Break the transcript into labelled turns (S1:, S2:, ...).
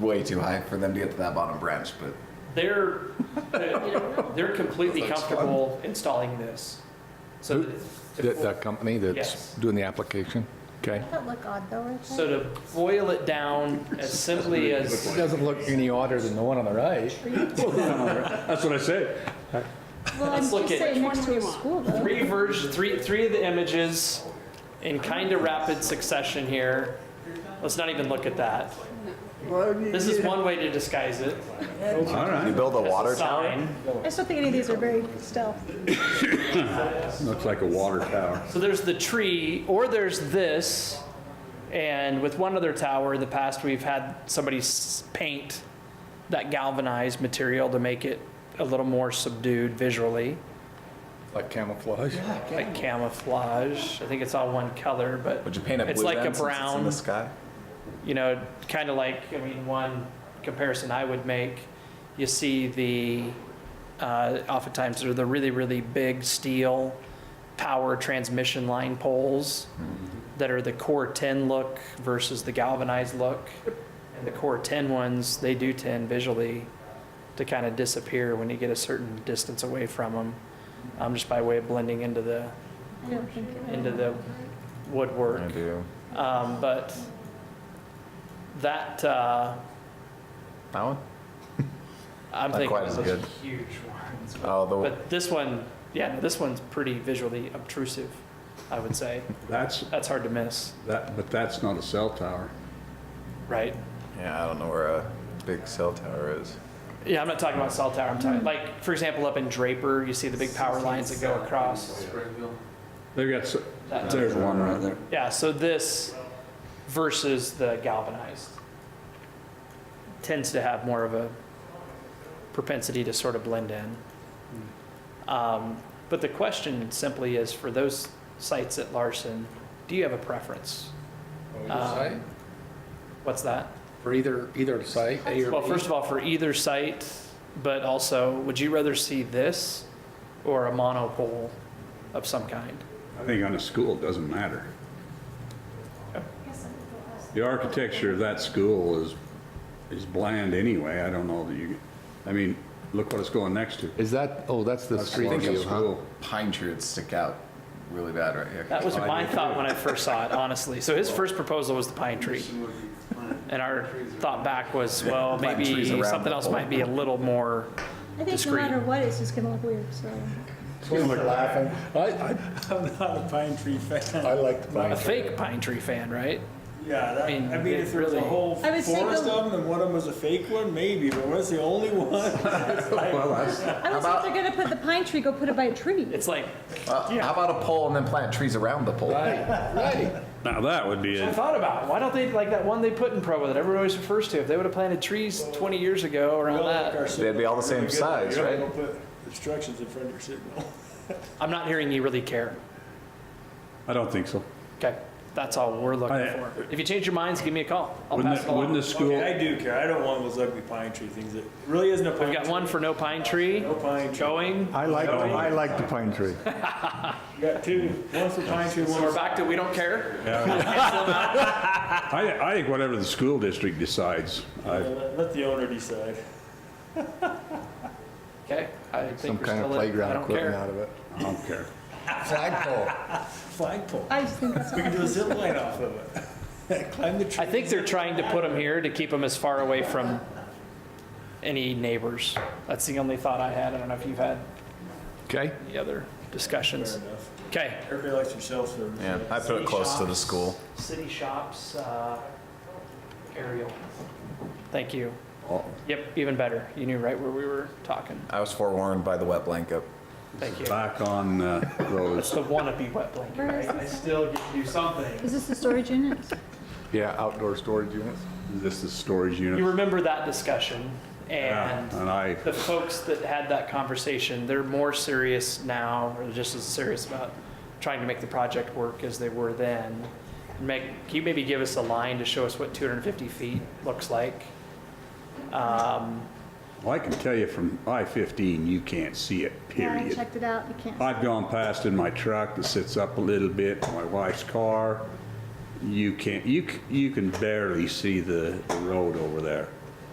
S1: way too high for them to get to that bottom branch, but
S2: They're, uh, they're completely comfortable installing this. So,
S3: Who-
S2: to-
S3: That, that company
S2: Yes.
S3: that's doing the application? Okay.
S4: That look odd though, right?
S2: so to boil it down as simply as,
S3: doesn't look any odder than the one on the right.
S5: That's what I say.
S4: Well, I'm
S2: Let's look
S4: just
S2: at-
S4: saying
S6: Which one
S4: next to
S6: do
S4: a
S6: you want?
S4: school though.
S2: three versions, three, three of the images in kind of rapid succession here. Let's not even look at that. This is one way to disguise it.
S5: All right.
S1: you build a
S2: as a
S1: water tower.
S2: sign.
S4: I just don't think any of these are very stealth.
S5: Looks like a water tower.
S2: So there's the tree, or there's this, and with one other tower in the past, we've had somebody s- paint that galvanized material to make it a little more subdued visually,
S3: Like camouflage.
S2: like camouflage. I think it's all one color, but
S1: Would you paint a blue
S2: it's like a
S1: then since it's in
S2: brown,
S1: the sky?
S2: you know, kind of like, I mean, one comparison I would make, you see the, uh, oftentimes they're the really, really big steel power transmission line poles that are the core 10 look versus the galvanized look. And the core 10 ones, they do tend visually to kind of disappear when you get a certain distance away from them, um, just by way of blending into the,
S4: I don't think. it-
S2: into the woodwork.
S1: do.
S2: Um, but that, uh,
S1: That one?
S2: I'm
S1: Not
S2: thinking
S1: quite
S2: of
S1: as
S2: those
S1: good.
S2: huge ones.
S1: Oh, the one.
S2: But this one, yeah, no, this one's pretty visually obtrusive, I would say.
S5: That's,
S2: That's hard to miss,
S5: that, but that's not a cell tower.
S2: right?
S1: Yeah, I don't know where a big cell tower is.
S2: Yeah, I'm not talking about cell tower. I'm talking, like, for example, up in Draper, you see the big power lines that go across.
S5: They've got, s-
S2: That-
S5: there's one right there.
S2: Yeah, so this versus the galvanized tends to have more of a propensity to sort of blend in. Um, But the question simply is, for those sites at Larson, do you have a preference? Um, What's that?
S3: For either, either site, A or
S2: Well,
S3: B?
S2: first of all, for either site, but also, would you rather see this or a monopole of some kind?
S5: I think on a school, it doesn't matter. The architecture of that school is, is bland anyway. I don't know that you, I mean, look what it's going next to.
S3: Is that, oh, that's the
S5: That's
S3: street
S5: Larson
S3: view, huh?
S5: School.
S1: Pine tree would stick out really bad right here.
S2: That was my thought when I first saw it, honestly. So his first proposal was the pine tree. And our thought back was, well,
S1: Plant
S2: maybe
S1: trees around
S2: something
S1: the
S2: else might be a little more,
S4: I think no
S2: Discreet.
S4: matter what, it's just gonna look weird, so.
S3: I,
S7: I'm not a pine tree fan.
S3: I like the pine
S2: a fake pine tree fan, right?
S7: Yeah,
S2: I
S7: that, I
S2: mean,
S7: mean,
S2: it
S7: if there's
S2: really-
S7: a whole
S4: I would
S7: forest
S4: say
S7: of
S4: the-
S7: them, then one of them was a fake one, maybe, but what's the only one?
S5: Well, that's,
S4: I would say if they're gonna put the pine tree, go put it by a tree.
S2: It's like,
S1: Uh, How about a pole and then plant trees around the pole?
S3: Right,
S5: now that would be
S2: I
S5: it.
S2: thought about, why don't they, like that one they put in Provo that everyone always refers to, if they would have planted trees 20 years ago around that.
S1: They'd be all the same size, right?
S7: You're not gonna put obstructions in front of your signal.
S2: I'm not hearing you really care.
S5: I don't think so.
S2: Okay, that's all we're looking
S5: I-
S2: for. If you change your minds, give me a call. I'll
S5: Wouldn't,
S2: pass it
S5: the- wouldn't
S2: along.
S5: the
S7: Okay,
S5: school,
S7: I do care, I don't want those ugly pine tree things, it really isn't a pine
S2: We've
S7: tree.
S2: got one for no pine tree,
S7: No pine tree.
S2: going.
S8: I like, I like the pine tree.
S7: You got two, one for pine tree, one
S2: We're
S7: for.
S2: back to we don't care.
S5: I, I think whatever the school district decides, I,
S7: Let let the owner decide.
S2: Okay, I
S3: some
S2: think we're
S3: kind
S2: still in, I
S3: of playground
S2: don't
S3: equipment
S2: care.
S3: out of it.
S5: I don't care.
S3: Flagpole.
S7: Flagpole,
S4: I just think that's.
S7: we can do a
S4: awesome.
S7: zip line off of it. Climb the tree.
S2: I think they're trying to put them here to keep them as far away from any neighbors. That's the only thought I had. I don't know if you've had
S3: Okay,
S2: any other discussions.
S7: Fair enough.
S2: Okay.
S7: Everybody likes their cell service.
S1: Yeah, I put it close to the school.
S2: City shops, uh, aerial. Thank you.
S1: Oh.
S2: Yep, even better. You knew right where we were talking.
S1: I was forewarned by the wet blanket.
S2: Thank you.
S5: Back on uh,
S2: It's
S5: those,
S2: the wannabe wet blanket.
S4: Where is
S2: right? I
S4: this?
S2: still get you something.
S4: Is this the storage unit?
S3: yeah, outdoor storage units.
S5: this is storage
S2: You
S5: unit.
S2: remember that discussion and
S5: And I,
S2: the folks that had that conversation, they're more serious now, or just as serious about trying to make the project work as they were then. Make, can you maybe give us a line to show us what 250 feet looks like? Um,
S5: well, I can tell you from I-15, you can't see it,
S4: Yeah, I
S5: period.
S4: checked it out, you can't.
S5: I've gone past in my truck that sits up a little bit, my wife's car. You can't, you, c- you can barely see the the road over there.